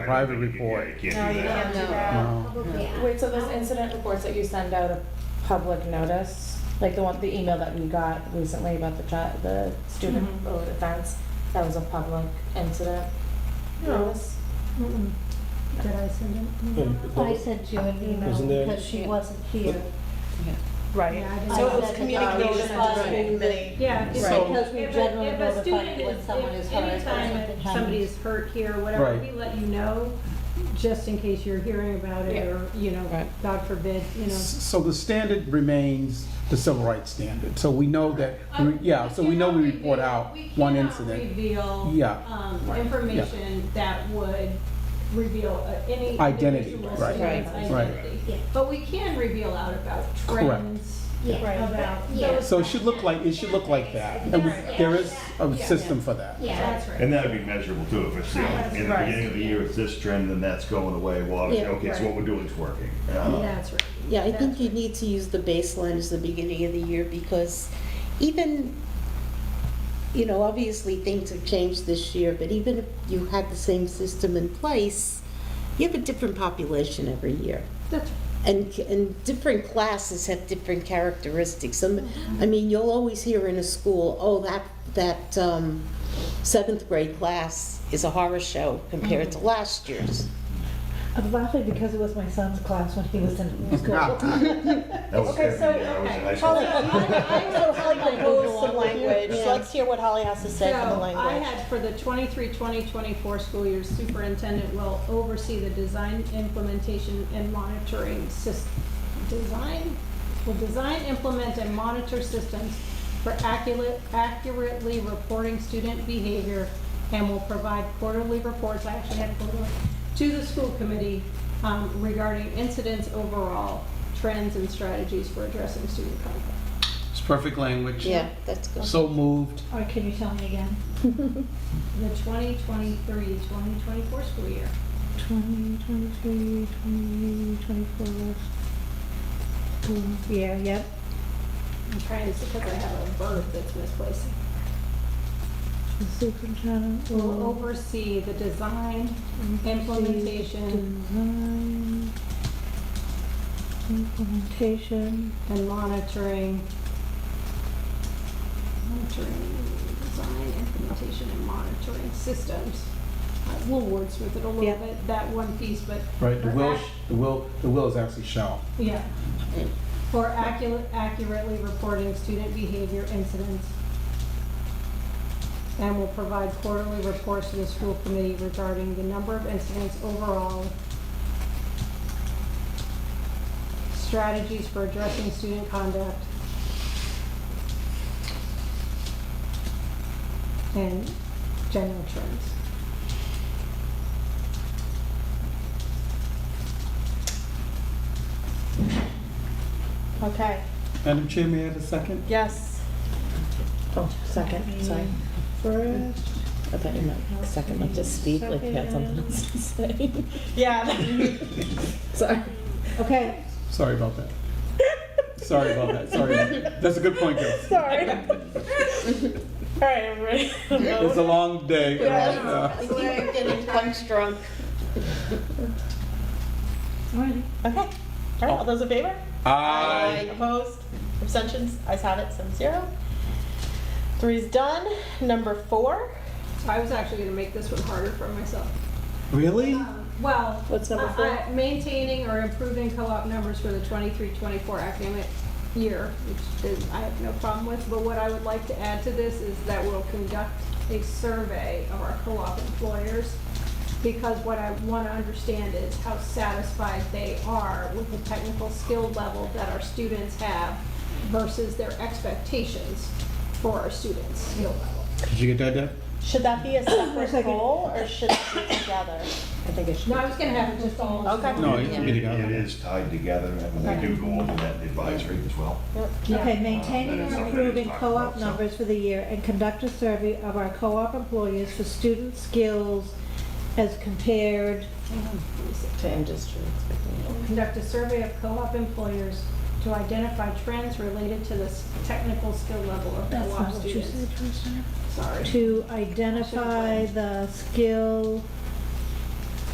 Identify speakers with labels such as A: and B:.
A: private report.
B: Yeah, you can't
C: No, you
B: do that.
C: can't do
D: No.
C: that.
A: No.
D: Yeah.
C: Wait, so those incident reports that you send out a public notice, like the one, the email that we got recently about the child, the student
E: Mhm.
C: bullied offense, that was a public incident
E: No.
C: notice?
E: Mm-mm. Did I send it?
F: Um,
E: I
F: no.
E: sent you an email
F: Wasn't there-
E: because she wasn't here.
C: Right.
E: Yeah, I
D: So
E: didn't-
D: it was communication
C: Notified.
D: to the committee.
G: Yeah,
F: Right.
G: it's
A: So-
G: because we
E: If a-
G: generally
E: if a
G: notify
E: student
G: you when
E: is-
G: someone
E: if
G: is hurt or
E: anytime
G: something
E: that
G: happens.
E: Somebody's hurt here, whatever,
A: Right.
E: we let you know, just in case you're hearing about it, or, you know, God forbid, you know.
A: So the standard remains the civil rights standard. So we know that, yeah, so we know we report out one incident.
E: We cannot reveal
A: Yeah.
E: um,
A: Right.
E: information that would reveal uh, any
A: Identity,
E: individual
A: right.
E: student's
C: Right.
A: Right.
E: identity.
D: Yeah.
E: But we can reveal out about trends,
D: Yeah.
C: Right.
E: about
D: Yeah.
E: those.
A: So it should look like, it should look like that. And we- there is a system for that.
D: Yeah.
E: That's right.
B: And that'd be measurable too, if it's, you know, in the
C: Right.
B: beginning of the year, it's this trend, then that's going away, well, obviously, okay, so what we're doing is working. Uh,
E: That's right.
H: Yeah, I think you need to use the baseline as the beginning of the year because even, you know, obviously things have changed this year, but even if you had the same system in place, you have a different population every year.
E: That's right.
H: And, and different classes have different characteristics. Some, I mean, you'll always hear in a school, oh, that, that um, seventh grade class is a horror show compared to last year's.
G: I'm laughing because it was my son's class when he was in school.
B: That was
C: Okay, so,
B: every year I was in
C: okay.
B: high school.
D: Holly, I I would like to propose some language. Let's hear what Holly has to say for the
E: So I
D: language.
E: had for the 23, 20, 24 school year, superintendent will oversee the design, implementation, and monitoring system. Design, will design, implement, and monitor systems for accurate, accurately reporting student behavior and will provide quarterly reports, I actually had quarterly, to the school committee um, regarding incidents overall, trends and strategies for addressing student conflict.
A: It's perfect language.
H: Yeah, that's good.
A: So moved.
G: Or can you tell me again?
E: The 2023, 2024 school year.
G: Twenty, twenty-three, twenty, twenty-four. Boom. Yeah, yep.
E: I'm trying to see because I have a verb that's misplaced.
G: The superintendent
E: Will
G: will
E: oversee the design,
G: oversee
E: implementation,
G: design, implementation,
E: and monitoring. Monitoring, design, implementation, and monitoring systems. Uh, We'll wordsmith it a little
G: Yeah.
E: bit, that one piece, but.
A: Right, the
E: for
A: will,
E: ac-
A: the will, the will is actually shall.
E: Yeah. For accurate, accurately reporting student behavior incidents. And will provide quarterly reports to the school committee regarding the number of incidents overall. Strategies for addressing student conduct. And general trends.
C: Okay,
A: Madam Chair, may I have a second?
C: yes.
H: Oh, second, sorry.
G: first,
H: I thought you meant second, like just speak, like you had something else to say.
C: Yeah.
H: Sorry.
G: okay,
A: Sorry about that. Sorry about that, sorry. That's a good point, Chris.
C: Sorry. All right, everybody.
A: It's a long day.
H: Yeah. I think we're getting punch drunk.
G: alrighty.
D: Okay, all right, all those in favor?
A: Aye.
D: Opposed? Abstentions? Ayes have it, seven zero. Three's done. Number four.
E: So I was actually gonna make this one harder for myself.
A: Really?
E: Um, Well.
H: What's number
E: uh,
H: four?
E: uh, Maintaining or improving co-op numbers for the 23-24 academic year, which is, I have no problem with. But what I would like to add to this is that we'll conduct a survey of our co-op employers. Because what I wanna understand is how satisfied they are with the technical skill level that our students have versus their expectations for our students' skill level.
A: Did you get that, Deb?
D: Should that be a separate
G: second.
D: goal or should it be together?
H: I think it should.
E: No, I was gonna have it just all.
D: Okay.
A: No, you can get it out.
B: It is tied together, and we do go over that in advisory as well.
G: Okay,
B: Uh,
G: maintaining
B: that is
G: or
B: something
G: improving
B: that is talked
G: co-op
B: about, so-
G: numbers for the year and conduct a survey of our co-op employees for student skills as compared
E: Hang on, let me see.
H: To industry.
E: conduct a survey of co-op employers to identify trends related to the s- technical skill level of
G: That's not
E: co-op
G: what you
E: students.
G: said, Tristan.
E: Sorry.
G: To identify the skill